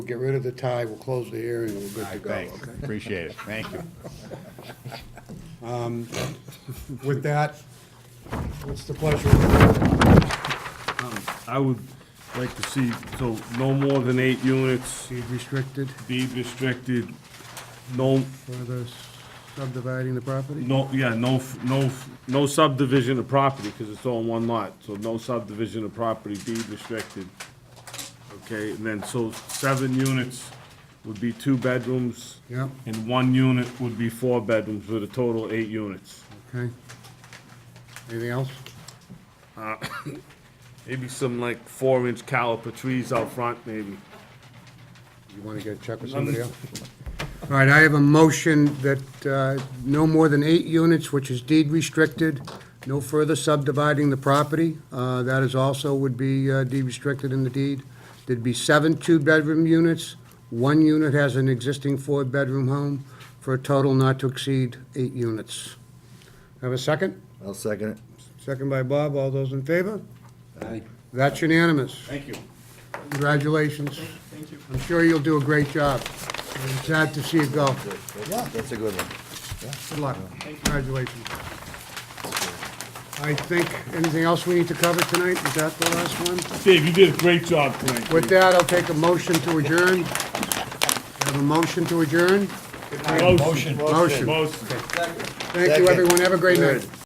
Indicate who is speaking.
Speaker 1: We'll Get rid of the tie, we'll close the hearing, and we're good to go,
Speaker 2: Thanks,
Speaker 1: okay?
Speaker 2: appreciate it, thank you.
Speaker 1: With that, what's the pleasure? of the board?
Speaker 3: I would like to see, so no more than eight units
Speaker 1: Deed restricted,
Speaker 3: deed restricted, no,
Speaker 1: further subdividing the property?
Speaker 3: no, yeah, no, f- no, f- no subdivision of property, because it's all in one lot, so no subdivision of property, deed restricted. Okay, and then, so seven units would be two bedrooms.
Speaker 1: Yeah.
Speaker 3: And one unit would be four bedrooms, with a total of eight units.
Speaker 1: Okay. Anything else?
Speaker 3: Maybe some like four-inch caliper trees out front, maybe.
Speaker 1: You want to get a check with somebody else? All right, I have a motion that uh, no more than eight units, which is deed restricted, no further subdividing the property. Uh, That is also would be uh, deed restricted in the deed. There'd be seven two-bedroom units. One unit has an existing four-bedroom home for a total not to exceed eight units. Have a second?
Speaker 4: I'll second it.
Speaker 1: Second by Bob. All those in favor? Aye. That's unanimous.
Speaker 3: Thank you.
Speaker 1: Congratulations. Thank you. I'm sure you'll do a great job. I'm sad to see you go.
Speaker 4: That's a good one.
Speaker 1: Good luck. Congratulations. I think, anything else we need to cover tonight? Is that the last one?
Speaker 3: Dave, you did a great job tonight.
Speaker 1: With that, I'll take a motion to adjourn. Have a motion to adjourn?
Speaker 3: Motion.
Speaker 1: Motion.
Speaker 3: Motion.
Speaker 1: Thank you, everyone. Have a great night.